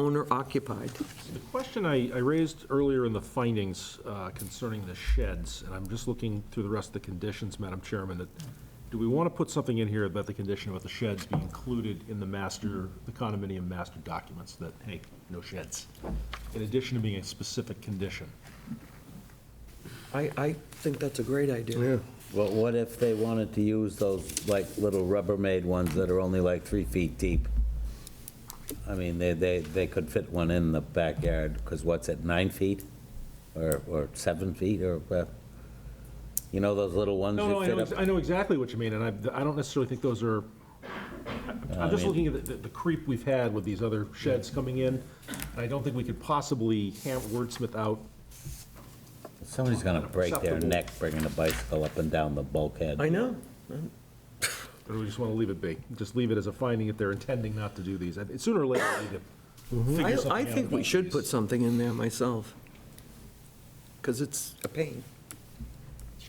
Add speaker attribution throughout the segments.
Speaker 1: owner occupied.
Speaker 2: The question I, I raised earlier in the findings uh, concerning the sheds, and I'm just looking through the rest of the conditions, Madam Chairman, that, do we want to put something in here about the condition about the sheds be included in the master, the condominium master documents, that, hey, no sheds, in addition to being a specific condition?
Speaker 1: I, I think that's a great idea.
Speaker 3: But what if they wanted to use those, like, little Rubbermaid ones that are only like three feet deep? I mean, they, they, they could fit one in the backyard, because what's it, nine feet? Or, or seven feet, or, uh, you know, those little ones
Speaker 2: No, no,
Speaker 3: that
Speaker 2: I
Speaker 3: fit
Speaker 2: know,
Speaker 3: up?
Speaker 2: ex- I know exactly what you mean, and I, I don't necessarily think those are, I- I'm just looking at the, the creep we've had with these other sheds coming in, and I don't think we could possibly ham- wordsmith out
Speaker 3: Somebody's gonna break their
Speaker 2: Acceptable.
Speaker 3: neck bringing a bicycle up and down the bulkhead.
Speaker 1: I know.
Speaker 2: Or do we just want to leave it be? Just leave it as a finding if they're intending not to do these? I- Sooner or later, we need to
Speaker 1: I,
Speaker 2: figure something out.
Speaker 1: I think we
Speaker 2: about
Speaker 1: should
Speaker 2: these.
Speaker 1: put something in there myself, because it's a pain.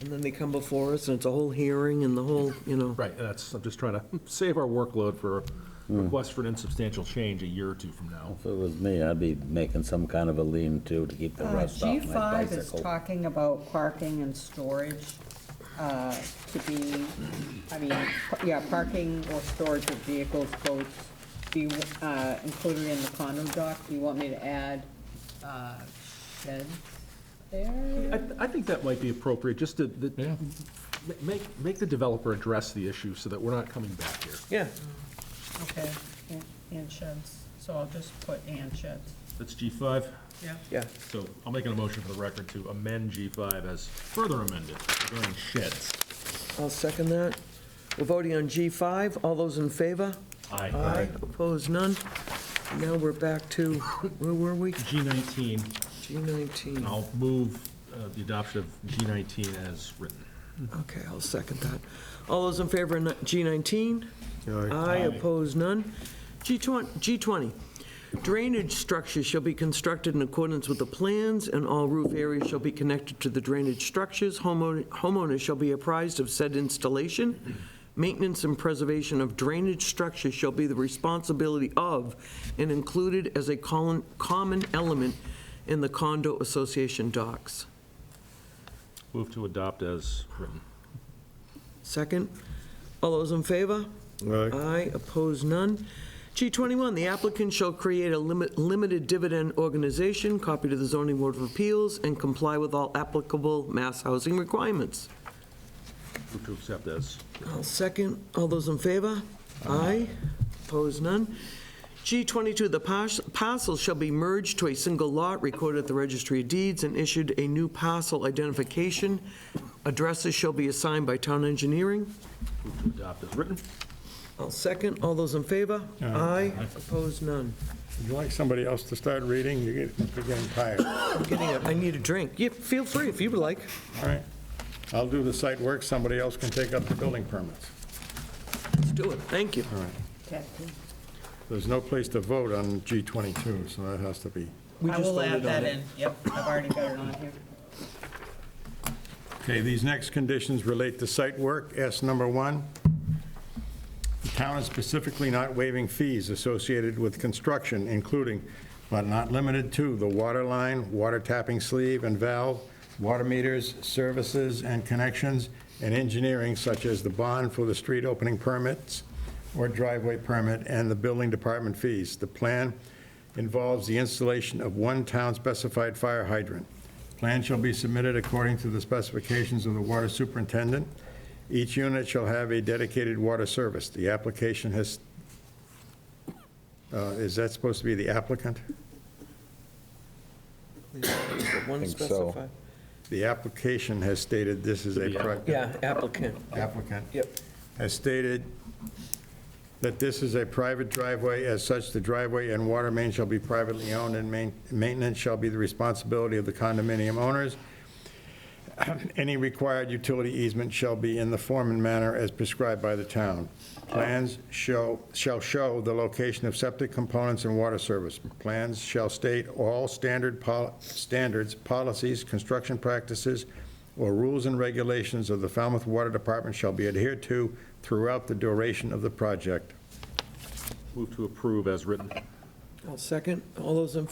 Speaker 1: And then they come before us, and it's a whole hearing and the whole, you know.
Speaker 2: Right, and that's, I'm just trying to save our workload for a request for an insubstantial change a year or two from now.
Speaker 3: If it was me, I'd be making some kind of a lean-to to keep the
Speaker 4: Uh,
Speaker 3: rust off my
Speaker 4: G5 is
Speaker 3: bicycle.
Speaker 4: talking about parking and storage uh, to be, I mean, p- yeah, parking or storage of vehicles, boats, be uh, included in the condo dock. Do you want me to add uh, sheds there?
Speaker 2: I, I think that might be appropriate, just to, that- ma- make, make the developer address the issue so that we're not coming back here.
Speaker 1: Yeah,
Speaker 4: Okay, and- and sheds. So I'll just put and sheds.
Speaker 2: That's G5,
Speaker 4: Yeah.
Speaker 1: yeah.
Speaker 2: so I'll make an motion for the record to amend G5 as further amended regarding sheds.
Speaker 1: I'll second that. We're voting on G5. All those in favor?
Speaker 2: Aye.
Speaker 1: Opposed, none. Now we're back to, where were we?
Speaker 2: G19, And
Speaker 1: G19.
Speaker 2: I'll move uh, the adoption of G19 as written.
Speaker 1: Okay, I'll second that. All those in favor of G19? Aye, opposed, none. G20, G20, drainage structures shall be constructed in accordance with the plans, and all roof areas shall be connected to the drainage structures. Homeowner- Homeowners shall be apprised of said installation. Maintenance and preservation of drainage structures shall be the responsibility of and included as a colon- common element in the condo association docs.
Speaker 2: Move to adopt as written.
Speaker 1: Second, all those in favor? Aye, opposed, none. G21, the applicant shall create a limit- limited dividend organization, copy to the zoning board of appeals, and comply with all applicable mass housing requirements.
Speaker 2: Move to accept as.
Speaker 1: I'll second, all those in favor? Aye, opposed, none. G22, the pars- parcel shall be merged to a single lot recorded at the registry of deeds and issued a new parcel identification. Addresses shall be assigned by town engineering.
Speaker 2: Move to adopt as written.
Speaker 1: I'll second. All those in favor? Aye. Opposed, none.
Speaker 5: Would you like somebody else to start reading? You're get- you're getting tired. All
Speaker 1: I'm getting a- I need a drink. Yeah, feel free if you would like.
Speaker 5: right. I'll do the site work, somebody else can take up the building permits.
Speaker 1: Let's do it. Thank you.
Speaker 5: There's no place to vote on G22, so that has to be.
Speaker 1: We
Speaker 4: I
Speaker 1: just
Speaker 4: will add
Speaker 1: voted on
Speaker 4: that
Speaker 1: it.
Speaker 4: in. Yep, I've already got it on here.
Speaker 5: Okay, these next conditions relate to site work. S number one, the town is specifically not waiving fees associated with construction, including but not limited to the water line, water tapping sleeve and valve, water meters, services and connections, and engineering such as the bond for the street opening permits or driveway permit and the building department fees. The plan involves the installation of one town-specified fire hydrant. Plan shall be submitted according to the specifications of the water superintendent. Each unit shall have a dedicated water service. The application has, uh, is that supposed to be the applicant?
Speaker 1: One
Speaker 3: Think so.
Speaker 1: specified.
Speaker 5: The application has stated this is a project.
Speaker 1: Yeah, applicant.
Speaker 5: Applicant.
Speaker 1: Yep.
Speaker 5: has stated that this is a private driveway. As such, the driveway and water main shall be privately owned, and main- maintenance shall be the responsibility of the condominium owners. Any required utility easement shall be in the form and manner as prescribed by the town. Plans show, shall show the location of septic components and water service. Plans shall state all standard, pol- standards, policies, construction practices, or rules and regulations of the Falmouth Water Department shall be adhered to throughout the duration of the project.
Speaker 2: Move to approve as written.
Speaker 1: Second, all those in